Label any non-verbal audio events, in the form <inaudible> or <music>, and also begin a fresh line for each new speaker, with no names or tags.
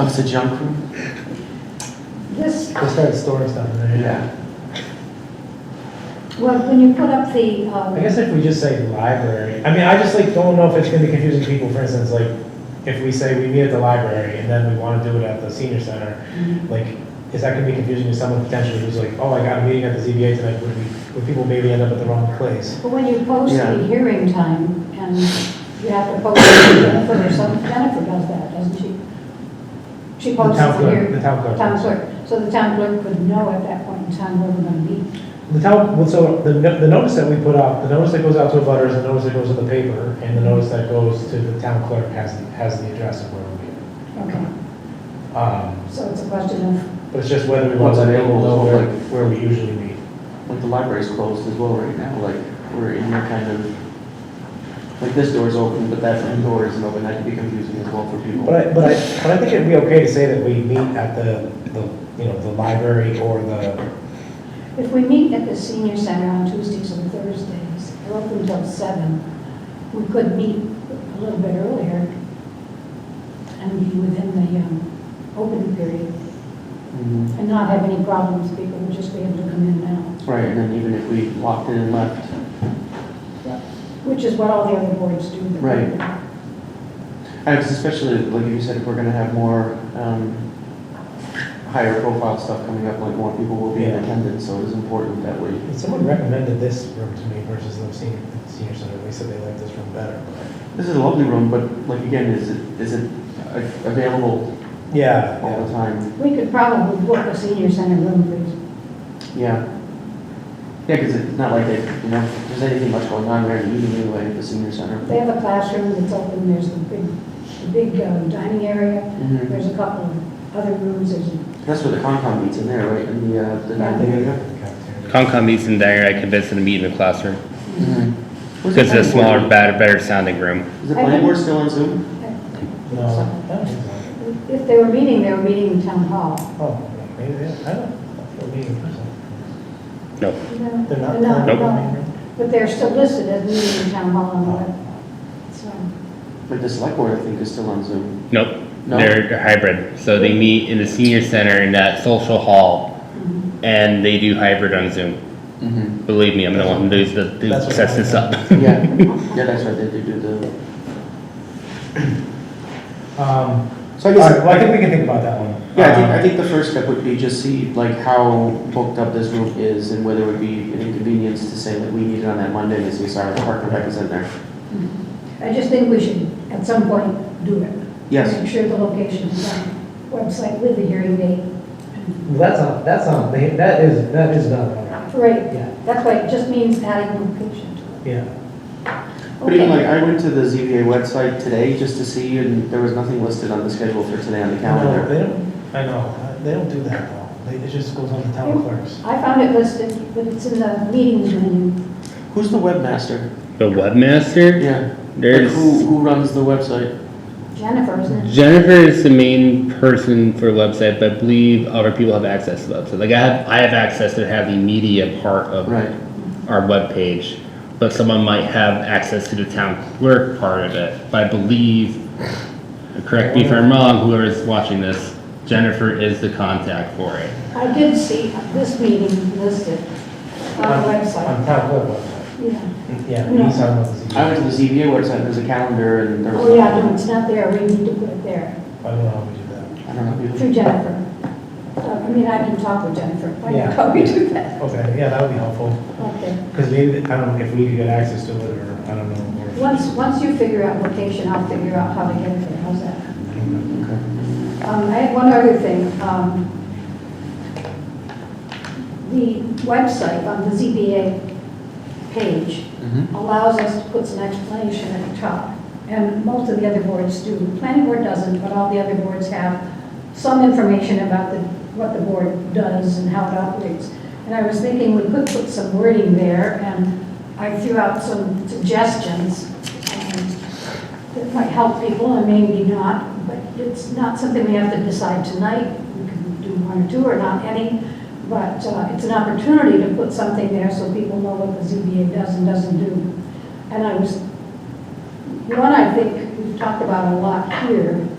Oh, it's a junk room?
This,
Just had storage down there.
Yeah.
well, when you put up the, um,
I guess if we just say library, I mean, I just like don't know if it's gonna be confusing people, for instance, like, if we say we meet at the library and then we wanna do it at the senior center,
Mm-hmm.
like, is that gonna be confusing to someone potentially who's like, oh, I got a meeting at the ZBA tonight, would we, would people maybe end up at the wrong place?
but when you post
Yeah.
the hearing time, and you have to post it to Jennifer or some, Jennifer does that, doesn't she? She
The
posts
town
the
clerk, the
hearing,
town clerk.
town clerk, so the town clerk would know at that point in time where we're gonna be.
The town, well, so the, no- the notice that we put out, the notice that goes out to abutters, the notice that goes to the paper, and the notice that goes to the town clerk has, the- has the address of where we're meeting.
Okay,
Um,
so it's a question of,
But it's just whether we want to
What's
let people know
available,
where,
like-
where we usually meet.
Like the library's closed as well right now, like, we're in here kind of, like this door's open, but that front door isn't open, that can be confusing as well for people.
But I, but I, but I think it'd be okay to say that we meet at the, the, you know, the library or the,
if we meet at the senior center on Tuesdays and Thursdays, we're open until seven, we could meet a little bit earlier and be within the, um, open period.
Mhm.
and not have any problems, people would just be able to come in now,
Right, and then even if we locked in and left,
which is what all the other boards do.
Right. I was especially, like you said, if we're gonna have more, um, higher profile stuff coming up, like more people will be in
Yeah.
attendance, so it is important that we,
someone recommended this room to me versus the senior, senior center, they said they liked this room better.
this is a lovely room, but like again, is it, is it a- available
Yeah,
all the
yeah.
time?
We could probably book a senior center room for
Yeah. Yeah, because it's not like they, you know, if there's anything much going on there, you can do away at the senior center.
They have a classroom that's open, there's the big, the big um, dining area,
Mhm.
there's a couple of other rooms, there's, a-
That's where the Concom meets in there, right, in the, uh, the ninth area?
Cafeteria.
Concom meets in there, I convinced them to meet in the classroom.
Mhm. Was the
Because it's
planning board-
a smaller, better, better sounding room.
Is the planning board still on Zoom?
No, I don't think so.
if they were meeting, they were meeting in town hall.
Oh, maybe, they- I don't, I don't mean,
No.
No,
they're not.
No,
Nope.
no, but they're still listed as meeting in town hall on the web, so,
But the select board, I think, is still on Zoom.
Nope.
No?
They're they're hybrid. So they meet in the senior center in that social hall
mhm.
and they do hybrid on Zoom.
Mm-hmm.
Believe me, I'm the one who does the, who
That's what
sets this up. <laughs>
Yeah, yeah, that's right, they do do the,
Um,
so I
all right,
guess,
well, I think we can think about that one. Um,
yeah, I think, I think the first step would be just see, like, how booked up this room is and whether it would be an inconvenience to say that we need it on that Monday, as we saw the park and rec is in there.
I just think we should, at some point, do it.
Yes,
Make sure the location is on website with the hearing date.
That's on, that's on, they- that is, that is done.
Right,
Yeah,
that's why it just means adding location to it.
yeah.
but even like,
Okay.
I went to the ZBA website today just to see, and there was nothing listed on the schedule for today on the
No,
calendar.
they don't, I know, they don't do that though. They, it just goes on the town clerks.
I found it listed, but it's in the meetings menu.
Who's the webmaster?
The webmaster,
Yeah, like, who,
there's,
who runs the website?
Jennifer, isn't it?
Jennifer is the main person for website, but I believe other people have access to the website. Like I have, I have access to have the media part of
Right,
our webpage, but someone might have access to the town clerk part of it. But I believe, correct me if I'm wrong, whoever's watching this, Jennifer is the contact for it.
I did see this meeting listed on the website.
On town clerk website.
Yeah.
Yeah,
No.
he's talking about the ZBA.
I went to the ZBA website, there's a calendar and there was.
Oh, yeah, no,
nothing.
it's not there, we need to put it there,
I don't know how we do that.
I don't know.
through Jennifer. Uh, I mean, I can talk with Jennifer, why
Yeah.
don't how we do that?
Okay, yeah, that would be helpful,
Okay.
because maybe, I don't know if we could get access to it, or, I don't know. or-
Once, once you figure out location, I'll figure out how to get there, how's that?
Okay.
Um, I had one other thing. um, The website on the ZBA page
Mhm.
allows us to put some explanation at the top, and most of the other boards do. The planning board doesn't, but all the other boards have some information about the, what the board does and how it operates. And I was thinking we could put some wording there, and I threw out some suggestions um, that might help people and maybe not, but it's not something we have to decide tonight. We can do one or two or not any, but uh, it's an opportunity to put something there so people know what the ZBA does and doesn't do. And I was, one I think we've talked about a lot here